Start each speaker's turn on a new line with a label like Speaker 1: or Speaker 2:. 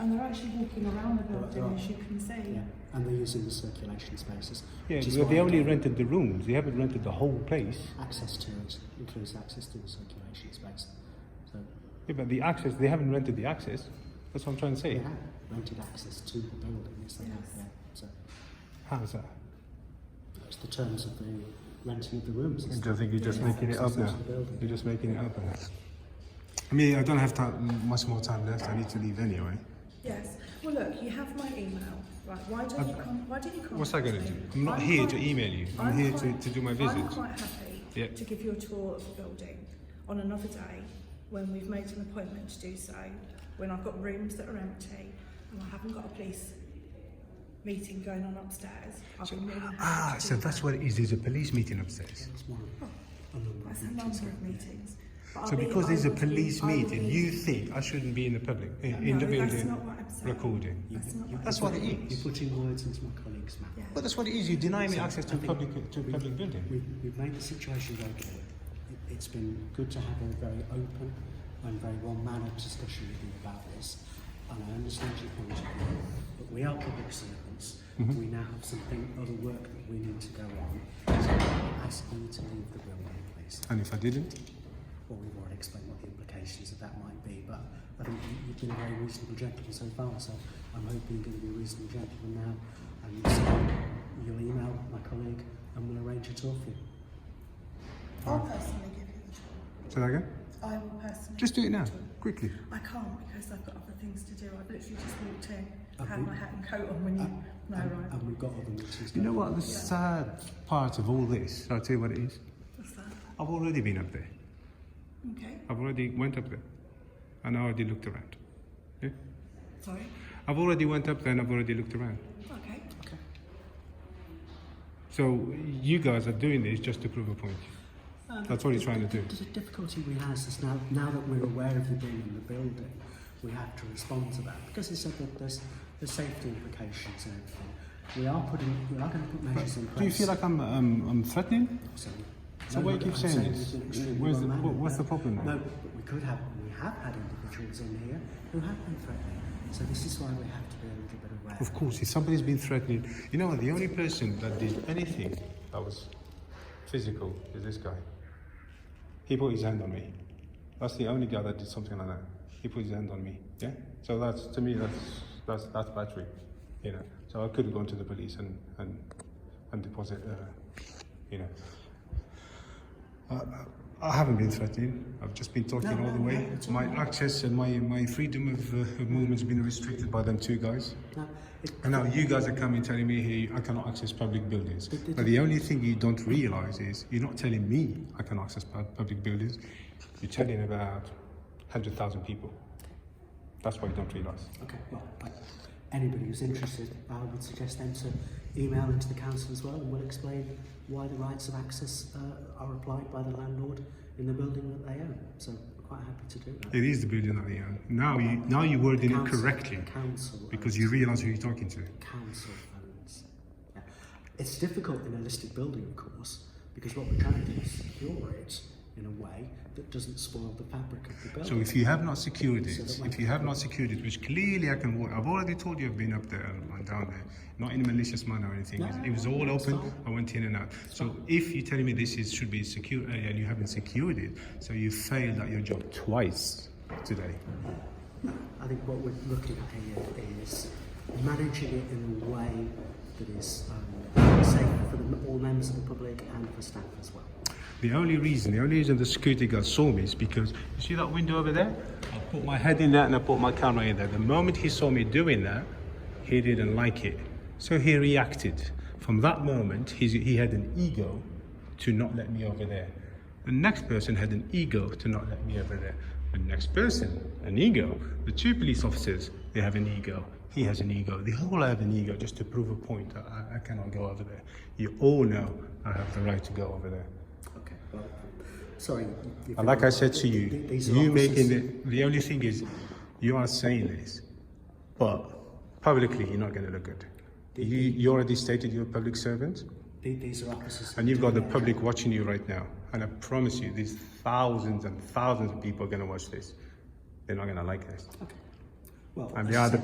Speaker 1: actually walking around the
Speaker 2: Right,
Speaker 1: building,
Speaker 2: right.
Speaker 1: as you can see.
Speaker 2: Yeah, and they're using the circulation spaces.
Speaker 3: Yeah,
Speaker 2: which is
Speaker 3: but they
Speaker 2: why
Speaker 3: only rented the rooms. They haven't rented the whole place.
Speaker 2: access to it includes access to the circulation space. So
Speaker 3: Yeah, but the access, they haven't rented the access. That's what I'm trying to
Speaker 2: they
Speaker 3: say.
Speaker 2: have rented access to the building. Yes, they have.
Speaker 1: Yes.
Speaker 2: Yeah. So
Speaker 3: How's that?
Speaker 2: it's the terms of the renting of the rooms. It's
Speaker 3: I think you're
Speaker 2: just making it up now. You're
Speaker 3: just making it up now. I mean, I don't have time, much more time left. I need to leave anyway.
Speaker 1: Yes. Well, look, you have my email. Right. Why don't you come? Why don't you come?
Speaker 3: What's that
Speaker 1: going
Speaker 3: gonna do? I'm not here to email you. I'm here to- to do my
Speaker 1: I'm
Speaker 3: visit.
Speaker 1: quite happy
Speaker 3: Yeah.
Speaker 1: to give you a tour of the building on another day when we've made an appointment to do so. When I've got rooms that are empty and I haven't got a police meeting going on upstairs, I'll be really happy
Speaker 3: Ah,
Speaker 1: to
Speaker 3: so
Speaker 1: do that.
Speaker 3: that's what it is. There's a police meeting upstairs.
Speaker 2: one. A number of
Speaker 1: That's a
Speaker 2: meetings,
Speaker 1: number
Speaker 2: yeah.
Speaker 1: of meetings. But
Speaker 3: So
Speaker 1: I'll be-
Speaker 3: because
Speaker 1: I
Speaker 3: there's a
Speaker 1: will be-
Speaker 3: police
Speaker 1: I will
Speaker 3: meeting,
Speaker 1: be-
Speaker 3: you think I shouldn't be in the public, in, in the
Speaker 1: No, that's
Speaker 3: building,
Speaker 1: not what I'm saying.
Speaker 3: recording.
Speaker 1: That's not what
Speaker 3: That's
Speaker 1: I'm
Speaker 3: what it
Speaker 1: saying.
Speaker 3: is.
Speaker 2: You're putting words into my colleague's mouth.
Speaker 1: Yeah.
Speaker 3: But that's what it is. You deny me access to
Speaker 2: I
Speaker 3: a
Speaker 2: think
Speaker 3: uh, public to a
Speaker 2: we-
Speaker 3: public building.
Speaker 2: We've, we've made the situation very clear. It, it's been good to have a very open and very well-mannered discussion with you about this. And I understand your point of view, but we are public servants.
Speaker 3: Mm-hmm.
Speaker 2: We now have something other work that we need to go on. So I'm asking you to leave the building, please.
Speaker 3: And if I didn't,
Speaker 2: Well, we've already explained what the implications of that might be, but I think you- you've been a very reasonable gentleman so far, so I'm hoping you're going to be a reasonable gentleman now. And so you'll email my colleague and we'll arrange a tour for you.
Speaker 1: I'll personally give you the
Speaker 3: say that again.
Speaker 1: tour. I will personally.
Speaker 3: Just do it
Speaker 1: give you
Speaker 3: now,
Speaker 1: the tour.
Speaker 3: quickly.
Speaker 1: I can't because I've got other things to do. I've literally just walked in,
Speaker 2: Have
Speaker 1: had
Speaker 2: you?
Speaker 1: my hat and coat on when you
Speaker 3: Uh,
Speaker 1: when I
Speaker 2: and,
Speaker 3: um,
Speaker 1: arrived.
Speaker 2: and we've got other meetings
Speaker 3: You know
Speaker 2: going
Speaker 3: what?
Speaker 2: on.
Speaker 3: The sad part of all this, I'll tell you what it is.
Speaker 1: What's that?
Speaker 3: I've already been up there.
Speaker 1: Okay.
Speaker 3: I've already went up there, and I already looked around. Yeah?
Speaker 1: Sorry.
Speaker 3: I've already went up there, and I've already looked around.
Speaker 1: Okay.
Speaker 3: So you guys are doing this just to prove a point.
Speaker 1: Um,
Speaker 3: That's what he's trying to do.
Speaker 2: The difficulty we have is now, now that we're aware of you being in the building, we have to respond to that because it's said that there's, there's safety implications and everything. We are putting, we are going to put measures in place.
Speaker 3: Do you feel like I'm um, I'm threatening?
Speaker 2: So,
Speaker 3: So
Speaker 2: no,
Speaker 3: why you
Speaker 2: but
Speaker 3: keep
Speaker 2: I'm
Speaker 3: saying
Speaker 2: we've
Speaker 3: this?
Speaker 2: been extremely
Speaker 3: Where's the-
Speaker 2: well-mannered.
Speaker 3: what- what's the problem now?
Speaker 2: No, but we could have, we have had individuals in here who have been threatening. So this is why we have to be a little bit aware.
Speaker 3: Of course, if somebody's been threatening, you know what? The only person that did anything that was physical is this guy. He put his hand on me. That's the only guy that did something like that. He put his hand on me. Yeah. So that's to me that's that's that's battery. You know. So I could have gone to the police and and and deposit. Uh, you know. I, I haven't been threatening. I've just been talking
Speaker 2: No,
Speaker 3: all
Speaker 2: no,
Speaker 3: the way.
Speaker 2: no, it's all
Speaker 3: my
Speaker 2: right.
Speaker 3: access and my my freedom of, uh, of movement's been restricted by them two guys.
Speaker 2: Now, it,
Speaker 3: And now you guys are coming telling me here I cannot access public buildings.
Speaker 2: But-
Speaker 3: But the only thing you don't realise is you're not telling me I can access pu- public buildings. You're telling about 100,000 people. That's what you don't realise.
Speaker 2: okay, well, but anybody who's interested, I would suggest them to email into the council as well, and we'll explain why the rights of access uh, are applied by the landlord in the building that they own. So we're quite happy to do that.
Speaker 3: It is the building that they own. Now you now you're wording it
Speaker 2: Council-
Speaker 3: correctly
Speaker 2: Council
Speaker 3: because
Speaker 2: owns
Speaker 3: you realise who you're talking to.
Speaker 2: council funds. Yeah. It's difficult in a listed building, of course, because what we're trying to do is secure it in a way that doesn't spoil the fabric of the
Speaker 3: So
Speaker 2: building.
Speaker 3: if you have not secured it, if you have not secured it, which clearly I can walk, I've already told you I've been up there and and down there, not in a malicious manner or anything. It was all open. I went in and out. So if you're telling me this is should be secure uh, and you haven't secured it, so you failed at your job twice today.
Speaker 2: I think what we're looking at here is managing it in a way that is um, safe for the, all members of the public and for staff as well.
Speaker 3: The only reason, the only reason the security guard saw me is because you see that window over there. I put my head in there and I put my camera in there. The moment he saw me doing that, he didn't like it, so he reacted. From that moment, he's, he had an ego to not let me over there. The next person had an ego to not let me over there. The next person, an ego. The two police officers, they have an ego. He has an ego. They all have an ego just to prove a point. I, I cannot go over there. You all know I have the right to go over there.
Speaker 2: Okay. Well, sorry. you-
Speaker 3: And like I said to you,
Speaker 2: Th- these are
Speaker 3: you
Speaker 2: officers.
Speaker 3: making it, the only thing is, you are saying this, but publicly you're not going to look good. You, you already stated you're a public servant,
Speaker 2: Th- These are officers.
Speaker 3: and you've got the public watching you right now. And I promise you, there's thousands and thousands of people are going to watch this. They're not going to like this.
Speaker 2: Okay. Well,
Speaker 3: And
Speaker 2: as
Speaker 3: the
Speaker 2: I
Speaker 3: other
Speaker 2: said,